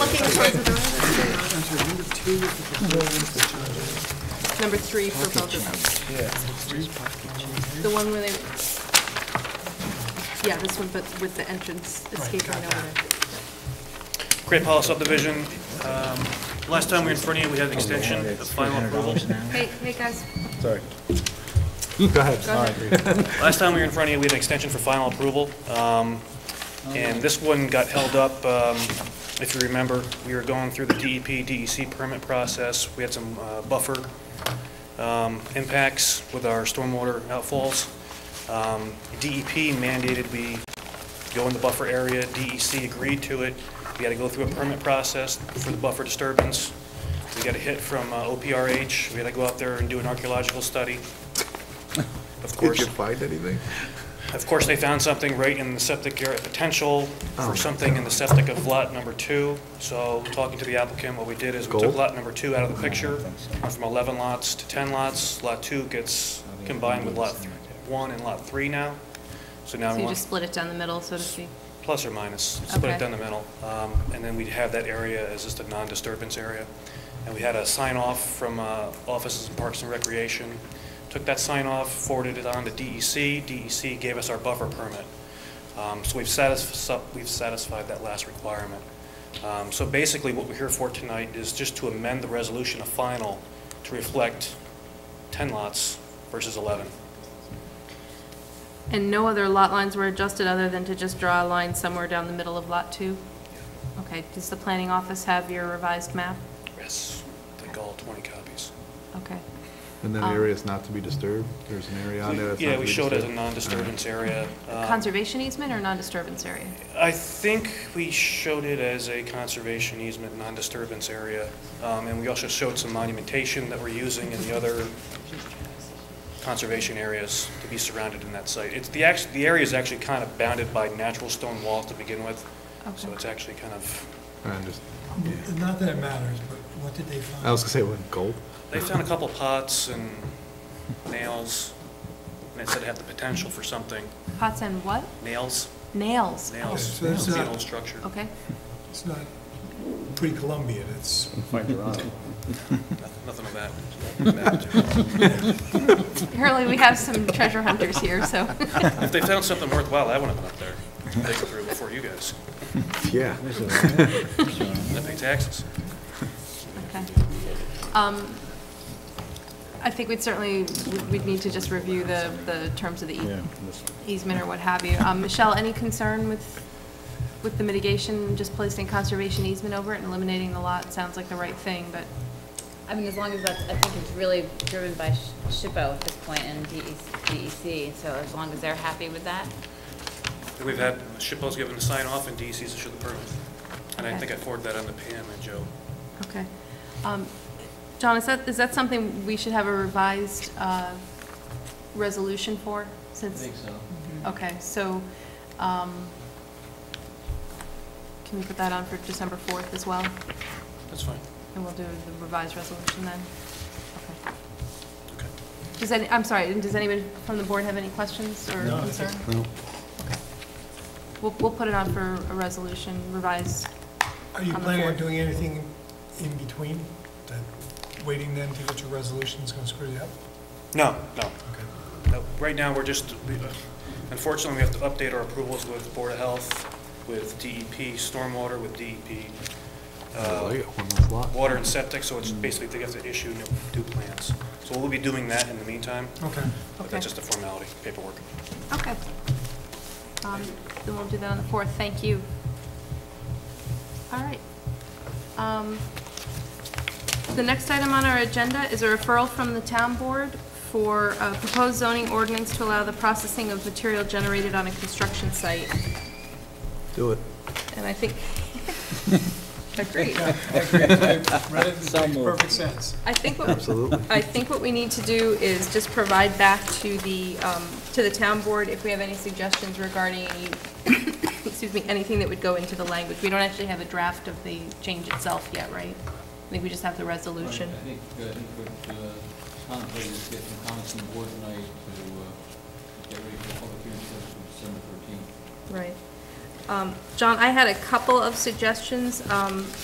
Number three for both of them. The one where they, yeah, this one, but with the entrance escape right over there. Great Hollow subdivision. Um, Last time we were in front of you, we had an extension, the final approval. Hey, hey, guys. Sorry. Go ahead. Go ahead. Last time we were in front of you, we had an extension for final approval. Um, And this one got held up, um, if you remember, we were going through the E DEP, DEC permit process. We had some uh, buffer um, impacts with our stormwater outfalls. Um, DEP mandated we go in the buffer area, DEC agreed to it. We got to go through a permit process for the buffer disturbance. We got a hit from uh, OPRH, we got to go out there and do an archaeological study. Of Did course, you find anything? of course, they found something right in the septic area potential for something in the septic of lot number two. So talking to the applicant, what we did is we took Gold? lot number two out of the picture, went from 11 lots to 10 lots. Lot two gets combined with lot th- one and lot three now. So now So we you want just split it down the middle, so to speak? plus or minus, split Okay. it down the middle. Um, And then we'd have that area as just a non-disturbance area. And we had a sign-off from uh, Offices and Parks and Recreation. Took that sign-off, forwarded it on to E DEC. DEC gave us our buffer permit. Um, So we've satisfied, we've satisfied that last requirement. Um, So basically, what we're here for tonight is just to amend the resolution of final to reflect 10 lots versus 11. And no other lot lines were adjusted other than to just draw a line somewhere down the middle of Lot 2? Okay, does the planning office have your revised map? Yes, I think all 20 copies. Okay. And then areas not to be disturbed? There's an area on there that's not Yeah, to Um, we be showed it as a disturbed? non-disturbance area. Um, Conservation easement or non-disturbance area? I think we showed it as a conservation easement, non-disturbance area, Um, and we also showed some monumentation that we're using in the other conservation areas to be surrounded in that site. It's, the act, the area is actually kind of bounded by natural stone wall to begin with, so Okay. it's actually kind of, I just, Not that it matters, but what did they find? I was gonna say, what, gold? they found a couple pots and nails, and it said it had the potential for something. Pots and what? Nails, Nails? nails, So it's It's an not- old structure. Okay, It's not pre-Columbian, it's, Nothing- Nothing of that. Nothing of that. apparently we have some treasure hunters here, so. If they found something worthwhile, I wouldn't have been up there, taken through before you guys. Yeah. I pay taxes. Okay. Um, I think we'd certainly, we'd need to just review the, the terms of the ea- easement or what have you. Um, Michelle, any concern with, with the mitigation, just placing conservation easement over it and eliminating the lot? Sounds like the right thing, but, I mean, as long as that's, I think it's really driven by Sh- SHPO at this point and E DEC, so as long as they're happy with that. And We've had, Shippo's given the sign off and DEC's issued the permit. And I Okay. think I forwarded that on to Pam and Joe. okay. Um, John, is that, is that something we should have a revised uh, resolution for, since? so. Okay, so, um, can we put that on for December 4th as well? That's fine. And we'll do the revised resolution then? Okay. Okay. Does any, I'm sorry, does anybody from the board have any questions or No, I concern? think- No. We'll, we'll put it on for a resolution revised. are you On the planning on fourth. doing anything in between? That Waiting then to get your resolutions gonna screw you up? No, no. Okay. No, Right now, we're just, we- uh, unfortunately, we have to update our approvals with Board of Health, with DEP, Stormwater, with DEP, I like uh, it, one less lot. Water and Septic, so it's basically, they have to issue new new plans. So we'll be doing that in the meantime, Okay. but Okay. that's just a formality, paperwork. Okay. Um, Then we'll do that on the 4th, thank you. All right. Um, The next item on our agenda is a referral from the town board for a proposed zoning ordinance to allow the processing of material generated on a construction site. Do it. And I think, agreed. Read it, it makes perfect sense. I think what, Absolutely. I think what we need to do is just provide back to the, um, to the town board if we have any suggestions regarding, any- excuse me, anything that would go into the language. We don't actually have a draft of the change itself yet, right? I think we just have the resolution. I think, uh, I think what uh, contemplated is get some comments from the board tonight to uh, get ready for the public hearing session on December thirteenth. Right. Um, John, I had a couple of suggestions. Um,